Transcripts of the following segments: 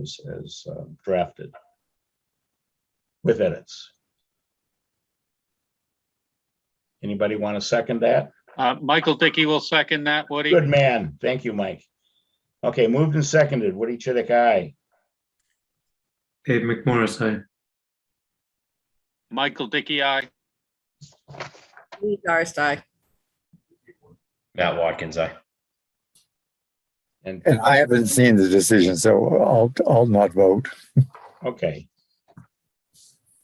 as, as uh, drafted. With edits. Anybody want to second that? Uh, Michael Dickey will second that, Woody. Good man. Thank you, Mike. Okay, moved and seconded. Woody Chidick, aye. Dave McMorris, aye. Michael Dickey, aye. Lee Darcey, Matt Watkins, I. And, And I haven't seen the decision, so I'll, I'll not vote. okay,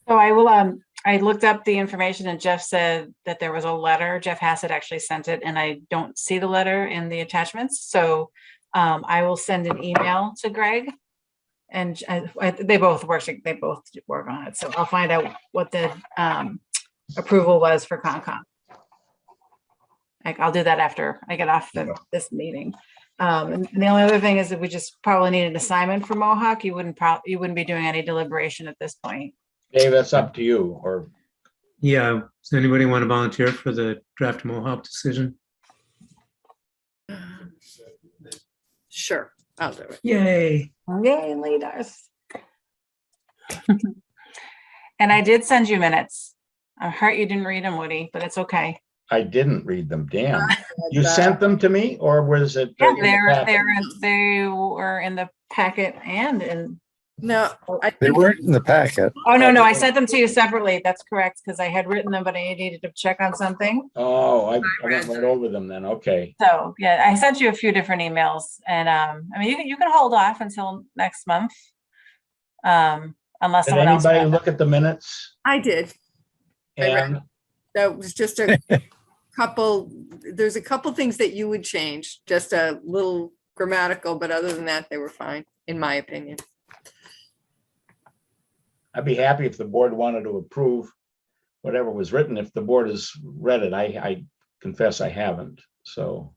So I will, um, I looked up the information and Jeff said that there was a letter. Jeff Hassett actually sent it and I don't see the letter in the attachments. So um, I will send an email to Greg. And I- I- they both work, they both work on it. So I'll find out what the um, approval was for Concom. Like, I'll do that after I get off the- this meeting. Um, and the only other thing is that we just probably need an assignment for Mohawk. You wouldn't prob, you wouldn't be doing any deliberation at this point. Dave, that's up to you, or Yeah, does anybody want to volunteer for the draft Mohawk decision? sure, I'll do it. Yay. Yay, leaders. And I did send you minutes. I'm hurt you didn't read them, Woody, but it's okay. I didn't read them, damn. You sent them to me, or was it? uh, in the They're, packet? they're, they were in the packet and in, No, I They think weren't in the packet. oh, no, no, I sent them to you separately. That's correct, because I had written them, but I needed to check on something. Oh, I I read went right over them then, okay. So, yeah, I sent you a few different emails and, um, I mean, you can, you can hold off until next month. Um, unless Did someone else. anybody look at the minutes? I did. I read And, That was just a couple, there's a couple things that you would change, just a little grammatical, but other than that, they were fine, in my opinion. I'd be happy if the board wanted to approve whatever was written, if the board has read it. I, I confess I haven't, so.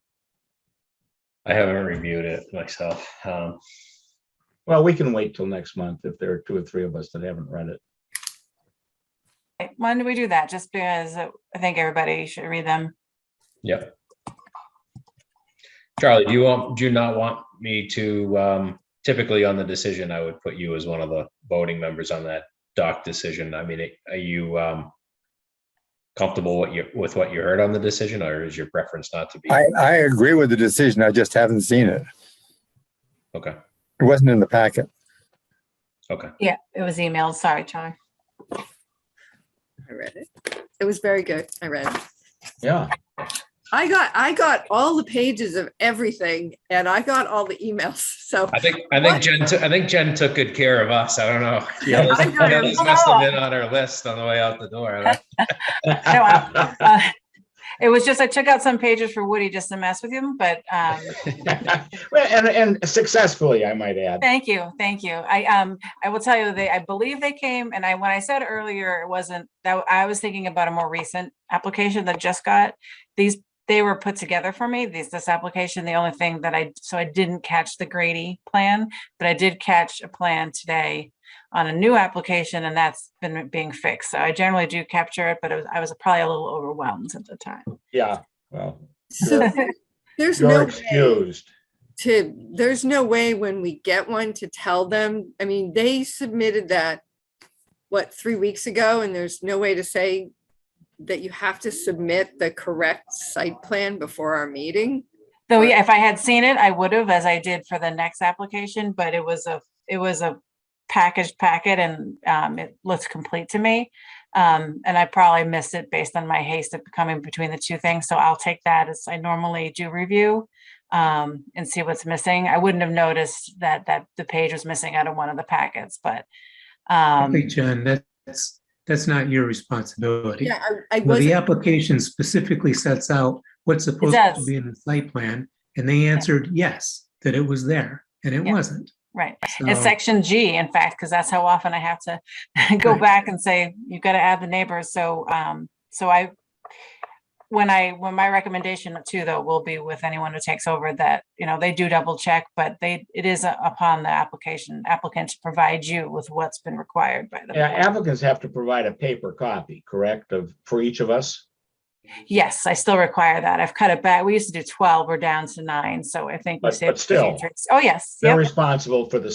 I haven't reviewed it myself. Um, Well, we can wait till next month if there are two or three of us that haven't read it. Right, When do we do that? Just because uh, I think everybody should read them. yep. Charlie, do you want, do you not want me to, um, typically on the decision, I would put you as one of the voting members on that doc decision. I mean, it- are you, um, comfortable what you, with what you heard on the decision or is your preference not to be? I, I agree with the decision. I just haven't seen it. Okay, It wasn't in the packet. okay. Yeah, it was emailed. Sorry, Charlie. I read it. It was very good. I read it. Yeah, I got, I got all the pages of everything and I got all the emails, so. I think, I think Jen, took- I think Jen took good care of us. I don't know. Yeah. This I got it. this must have been on her list on the way out the door. I don't- I- Uh, It was just, I took out some pages for Woody just to mess with him, but um, Well, and, and successfully, I might add. thank you, thank you. I um, I will tell you, they, I believe they came and I, when I said earlier, it wasn't, that I was thinking about a more recent application that just got. These, they were put together for me, these, this application, the only thing that I, so I didn't catch the Grady plan, but I did catch a plan today on a new application and that's been being fixed. So I generally do capture it, but it was- I was probably a little overwhelmed at the time. Yeah, well, So there's no. you're way- excused. to, there's no way when we get one to tell them, I mean, they submitted that, what, three weeks ago, and there's no way to say that you have to submit the correct site plan before our meeting? Though, Right. yeah, if I had seen it, I would have, as I did for the next application, but it was a, it was a packaged packet and um, it looks complete to me. Um, and I probably missed it based on my haste of coming between the two things, so I'll take that as I normally do review um, and see what's missing. I wouldn't have noticed that, that the page was missing out of one of the packets, but um, Hey, John, that's, that's not your responsibility. Yeah, I, I Well, wasn't. the application specifically sets out what's supposed to does. be in the site plan, and they answered yes, that it was there, and it Yeah. wasn't. right. So- It's section G, in fact, because that's how often I have to go Right. back and say, you've got to add the neighbors, so, um, so I, when I, when my recommendation too, though, will be with anyone who takes over that, you know, they do double check, but they, it is upon the application applicant to provide you with what's been required by Yeah, them. applicants have to provide a paper copy, correct, of, for each of us? Yes, I still require that. I've cut it back. We used to do twelve, we're down to nine, so I think. we But- saved but still, $53. Oh, yes. They're yep. responsible for the